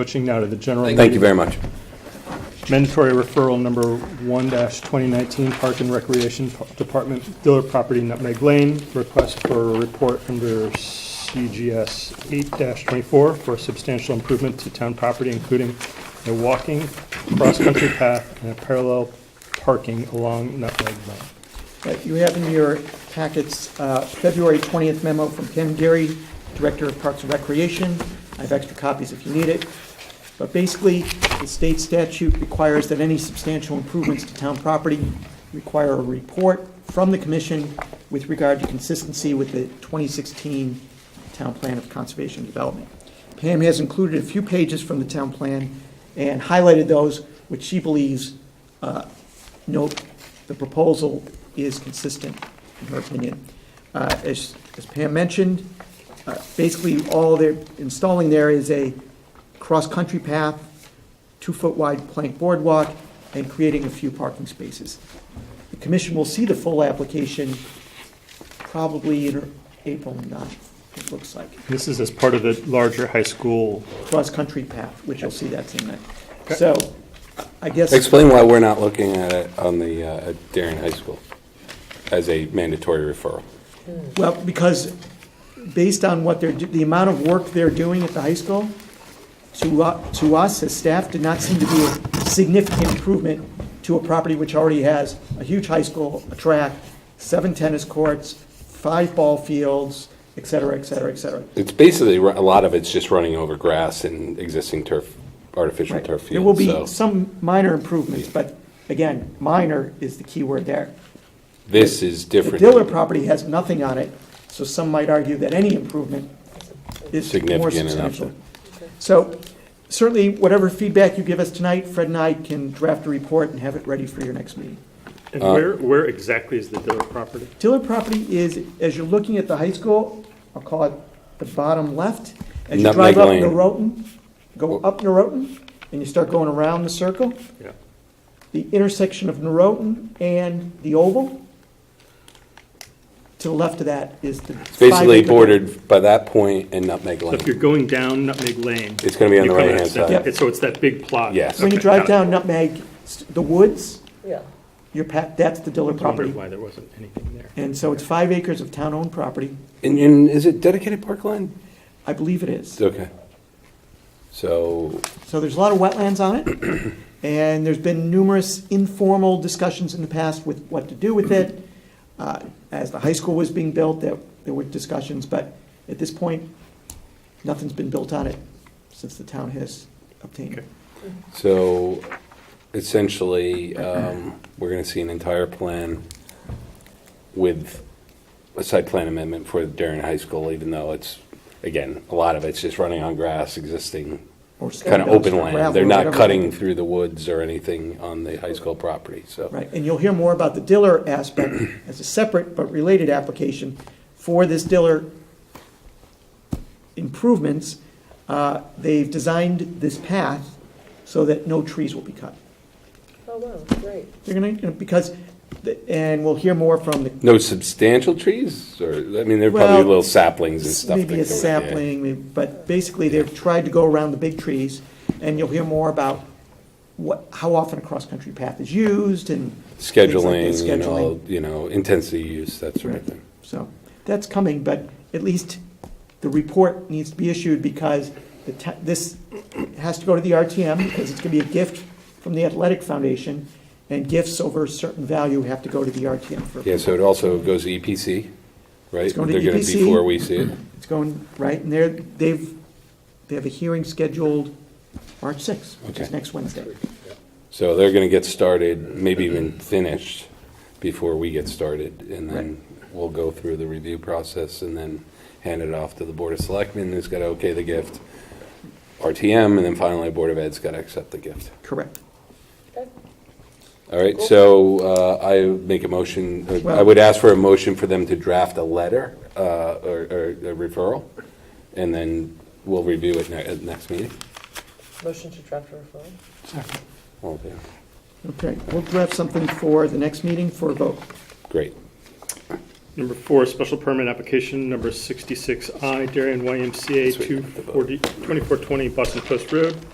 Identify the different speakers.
Speaker 1: Switching now to the general.
Speaker 2: Thank you very much.
Speaker 1: Mandatory referral number 1-2019, Park and Recreation Department, Diller Property Nutmeg Lane, request for a report under CGS 8-24 for substantial improvement to town property, including a walking, cross-country path, and a parallel parking along Nutmeg Lane.
Speaker 3: Right, You have in your packets uh, February 20th memo from Ken Gary, Director of Parks and Recreation. I have extra copies if you need it. But basically, the state statute requires that any substantial improvements to town property require a report from the commission with regard to consistency with the 2016 Town Plan of Conservation and Development. Pam has included a few pages from the town plan and highlighted those which she believes uh, note the proposal is consistent, in her opinion. Uh, As as Pam mentioned, uh, basically, all they're installing there is a cross-country path, two-foot-wide plank boardwalk, and creating a few parking spaces. The commission will see the full application probably in April 9th, it looks like
Speaker 1: This is as part of the larger high school,
Speaker 3: cross-country path, which you'll see that same night.
Speaker 1: Okay.
Speaker 3: So, I guess,
Speaker 2: Explain why we're not looking at it on the, uh, at Darien High School as a mandatory referral.
Speaker 3: well, because based on what they're, do- the amount of work they're doing at the high school, to, u- to us as staff, did not seem to be a significant improvement to a property which already has a huge high school, a track, seven tennis courts, five ball fields, et cetera, et cetera, et cetera.
Speaker 2: It's basically, ru- a lot of it's just running over grass and existing turf, artificial
Speaker 3: Right.
Speaker 2: turf
Speaker 3: There will
Speaker 2: fields, so
Speaker 3: be some minor improvements, but again, minor is the key word there.
Speaker 2: this is
Speaker 3: The
Speaker 2: different.
Speaker 3: Diller property has nothing on it, so some might argue that any improvement is more
Speaker 2: Significant enough.
Speaker 3: substantial. So certainly, whatever feedback you give us tonight, Fred and I can draft a report and have it ready for your next meeting.
Speaker 2: Uh,
Speaker 1: and where, where exactly is the Diller property?
Speaker 3: Diller property is, as you're looking at the high school, I'll call it the bottom left. As you
Speaker 2: Nutmeg
Speaker 3: drive up
Speaker 2: Lane.
Speaker 3: Norotan, go up Norotan, and you start going around the circle,
Speaker 1: Yeah.
Speaker 3: the intersection of Norotan and the oval. To the left of that is the.
Speaker 2: It's basically
Speaker 3: five-acre-
Speaker 2: bordered by that point and Nutmeg
Speaker 1: So if
Speaker 2: Lane.
Speaker 1: you're going down Nutmeg Lane.
Speaker 2: It's gonna be on
Speaker 1: you
Speaker 2: the
Speaker 1: come out,
Speaker 2: right-hand
Speaker 1: it's that-
Speaker 2: side.
Speaker 1: it's- So it's that big plot.
Speaker 2: Yes.
Speaker 3: When you
Speaker 1: Okay,
Speaker 3: drive
Speaker 1: got it.
Speaker 3: down Nutmeg, s- the woods,
Speaker 4: Yeah.
Speaker 3: your path, that's the Diller
Speaker 1: I wondered
Speaker 3: property.
Speaker 1: why there wasn't anything there.
Speaker 3: And so it's five acres of town-owned property.
Speaker 2: And, and is it dedicated parkland?
Speaker 3: I believe it is.
Speaker 2: Okay. So,
Speaker 3: So there's a lot of wetlands on it. And there's been numerous informal discussions in the past with what to do with it. Uh, As the high school was being built, there, there were discussions, but at this point, nothing's been built on it since the town has obtained it.
Speaker 2: so essentially, um, we're gonna see an entire plan with a site plan amendment for Darien High School, even though it's, again, a lot of it's just running on grass, existing
Speaker 3: Or stone
Speaker 2: kind of
Speaker 3: dust
Speaker 2: open
Speaker 3: or
Speaker 2: land.
Speaker 3: gravel
Speaker 2: They're
Speaker 3: or
Speaker 2: not
Speaker 3: whatever.
Speaker 2: cutting through the woods or anything on the high school property, so.
Speaker 3: Right, and you'll hear more about the Diller aspect as a separate but related application for this Diller improvements. uh, They've designed this path so that no trees will be cut.
Speaker 4: Oh, wow, great.
Speaker 3: They're gonna, because, the- and we'll hear more from the,
Speaker 2: No substantial trees, or, I mean, there are probably
Speaker 3: Well,
Speaker 2: little saplings and stuff.
Speaker 3: maybe
Speaker 2: that
Speaker 3: a
Speaker 2: go in, yeah.
Speaker 3: sapling, maybe- but basically they've tried to go around the big trees. And you'll hear more about what, how often a cross-country path is used and. things like that,
Speaker 2: Scheduling, you
Speaker 3: scheduling.
Speaker 2: know, you know, intensity use, that sort of
Speaker 3: Right.
Speaker 2: thing.
Speaker 3: So that's coming, but at least the report needs to be issued because the, ta- this has to go to the RTM because it's going to be a gift from the Athletic Foundation and gifts over a certain value have to go to the RTM for.
Speaker 2: Yeah, so it also goes to EPC, right?
Speaker 3: It's going to E
Speaker 2: They're gonna-
Speaker 3: EPC.
Speaker 2: Before we see it.
Speaker 3: It's going, right, and they're, they've, they have a hearing scheduled March 6th, which is
Speaker 2: Okay.
Speaker 3: next Wednesday.
Speaker 2: So they're going to get started, maybe even finished, before we get started. And
Speaker 3: Right.
Speaker 2: then we'll go through the review process and then hand it off to the Board of Selectmen, who's got to okay the gift, RTM, and then finally Board of Ed's got to accept the gift.
Speaker 3: Correct.
Speaker 2: All right, so uh, I make a motion, uh, I
Speaker 3: Well-
Speaker 2: would ask for a motion for them to draft a letter uh, or or a referral, and then we'll review it ne- at next meeting.
Speaker 4: Motion to draft a referral?
Speaker 2: All in favor?
Speaker 3: Okay, we'll draft something for the next meeting for a vote.
Speaker 2: Great.
Speaker 1: Number four, special permit application number 66I, Darien YMCA
Speaker 2: Sweet.
Speaker 1: 240 2420 Boston Post Road.